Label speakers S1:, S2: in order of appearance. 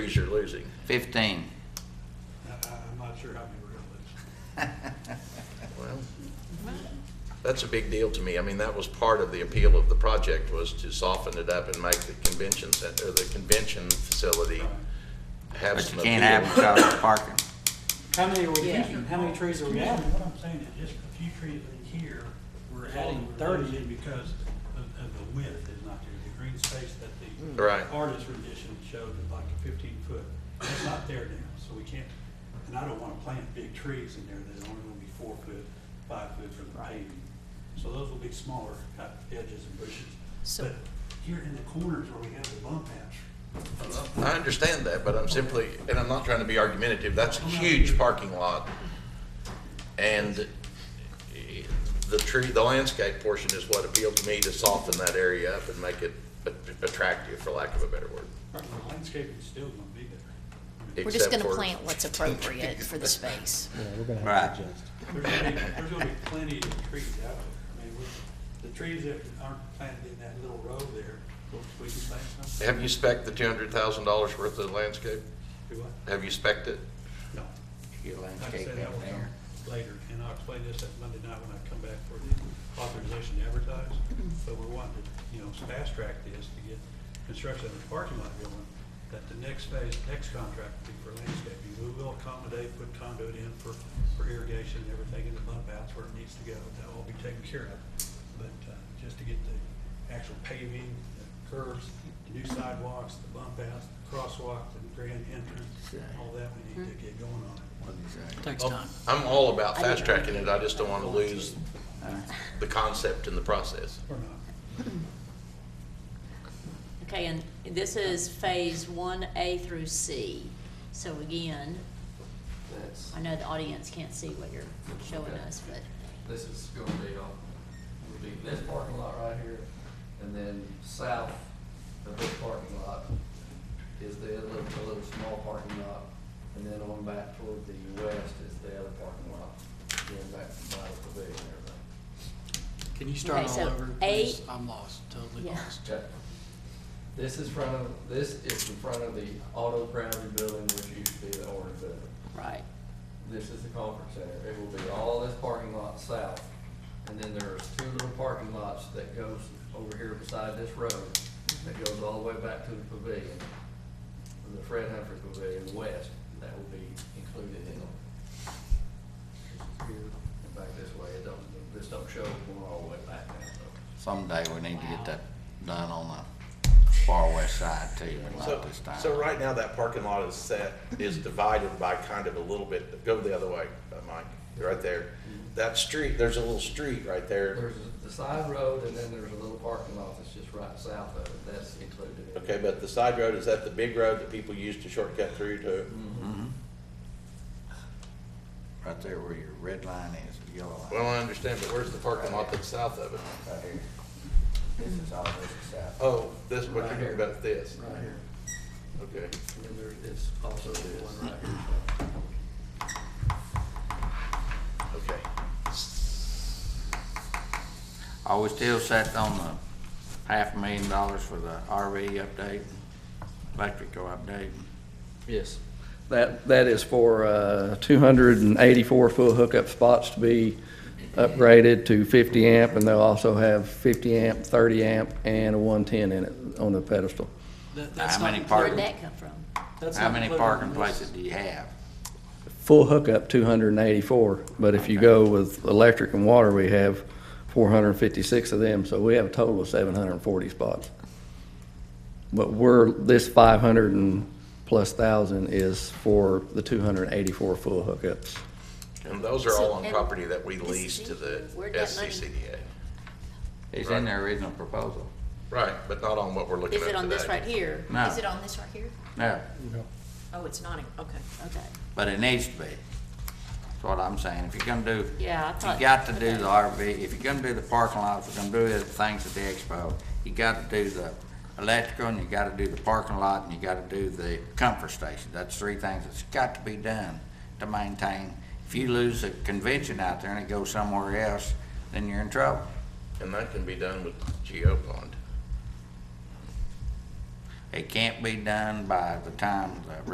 S1: cities are losing?
S2: Fifteen.
S3: I- I'm not sure how many we're
S1: Well, that's a big deal to me. I mean, that was part of the appeal of the project was to soften it up and make the convention center, the convention facility have
S2: But
S1: some
S2: you can't have
S1: appeal.
S2: them without parking.
S4: How many are we
S5: Yeah.
S4: keeping? How many trees are we
S3: gonna lose.
S4: adding?
S3: What I'm saying is just a few trees in here, we're adding thirty because of, of the width is not there. The green space that the
S1: Right.
S3: artist rendition showed is like a fifteen foot. It's not there now, so we can't, and I don't wanna plant big trees in there that are only gonna be four foot, five foot from the paving. So those will be smaller, cut edges and bushes.
S5: So-
S3: But here in the corners where we have the bump outs,
S1: I understand that, but I'm simply, and I'm not trying to be argumentative, that's a huge parking lot. And eh, the tree, the landscape portion is what appealed to me to soften that area up and make it a- attractive, for lack of a better word.
S3: the landscaping's still gonna be there.
S5: We're just
S1: except
S5: gonna
S1: for-
S5: plant what's appropriate for the space.
S6: Yeah, we're gonna
S2: Right.
S6: have to adjust.
S3: There's gonna be, there's gonna be plenty of trees out there. I mean, we- the trees that aren't planted in that little row there, we can plant some.
S1: Have you spec'd the two hundred thousand dollars worth of landscape?
S3: Do I?
S1: Have you spec'd it?
S3: No.
S2: Your
S3: Like I
S2: landscape
S3: said, that
S2: in
S3: will
S2: there.
S3: come later, and I'll explain this at Monday night when I come back for the authorization to advertise. But we're wanting to, you know, fast track this to get construction of the parking lot going, that the next phase, next contract will be for landscaping. We will accommodate, put conduit in for, for irrigation and everything in the bump outs where it needs to go. That'll all be taken care of. But, uh, just to get the actual paving, the curves, the new sidewalks, the bump outs, the crosswalk, the grand entrance, all that we need to get going on it.
S4: Takes
S1: Oh,
S4: time.
S1: I'm all about fast tracking it, I just don't want to lose the concept in the process.
S3: Or not.
S5: Okay, and this is phase one A through C. So again,
S7: That's,
S5: I know the audience can't see what you're showing us, but
S7: this is gonna be on, would be this parking lot right here, and then south of this parking lot is the other, the little small parking lot, and then on back toward the west is the other parking lot, going back to Bible Pavilion and everything.
S4: Can you start
S5: Okay,
S4: all
S5: so
S4: over?
S5: eight-
S4: please? I'm lost, totally
S5: Yeah.
S4: lost.
S7: Okay. This is front of, this is in front of the auto grounding building, which used to be the orange building.
S5: right.
S7: This is the conference center. It will be all this parking lot south. And then there's two little parking lots that goes over here beside this road that goes all the way back to the pavilion. The Fred Humphrey Pavilion West, that will be included in it. Here and Back this way, it don't, this don't show going all the way back now, so.
S2: Someday we need to get that done on the far west side too, but
S1: So,
S2: not this time.
S1: so right now, that parking lot is set, is divided by kind of a little bit, go the other way, uh, Mike, right there. That street, there's a little street right there,
S7: There's the side road and then there's a little parking lot that's just right south of it. That's included in it.
S1: okay, but the side road, is that the big road that people use to shortcut through to?
S2: Right there where your red line is, the yellow line.
S1: Well, I understand, but where's the parking lot that's south of it?
S2: Right here. This is all this south.
S1: Oh, this, what you're talking about, this,
S7: Right here.
S1: okay.
S7: And then there is also the one right here. so.
S1: Okay.
S2: Are we still set on the half a million dollars for the RV update, electrical update?
S8: Yes. That, that is for uh, 284 full hookup spots to be upgraded to 50 amp, and they'll also have 50 amp, 30 amp, and a 110 in it on the pedestal.
S4: That- that's
S2: How
S4: not
S2: many
S4: included-
S5: Where'd
S2: Parking.
S5: that come from?
S4: that's
S2: How
S4: not
S2: many
S4: included in
S2: parking
S4: this.
S2: places do you have?
S8: Full hookup, 284, but if you go with electric and water, we have 456 of them, so we have a total of 740 spots. But we're, this 500 and plus thousand is for the 284 full hookups.
S1: And those are all
S5: So,
S1: on
S5: and
S1: property that we
S5: this
S1: lease to the
S5: is- where'd that money-
S1: SCCDA.
S2: It's in their original proposal.
S1: Right, but not on what we're looking at
S5: Is
S1: today.
S5: it on this right here?
S2: No.
S5: Is it on this right here?
S2: No,
S5: Oh, it's not, okay. Okay,
S2: but it needs to be. That's what I'm saying. If you're gonna do,
S5: yeah, I
S2: if
S5: thought.
S2: you got to do
S5: okay.
S2: the RV, if you're gonna do the parking lot, if you're gonna do the things at the expo, you gotta do the electrical, and you gotta do the parking lot, and you gotta do the comfort station. That's three things that's got to be done to maintain. If you lose a convention out there and it goes somewhere else, then you're in trouble.
S1: And that can be done with GeoPond.
S2: It can't be done by the time the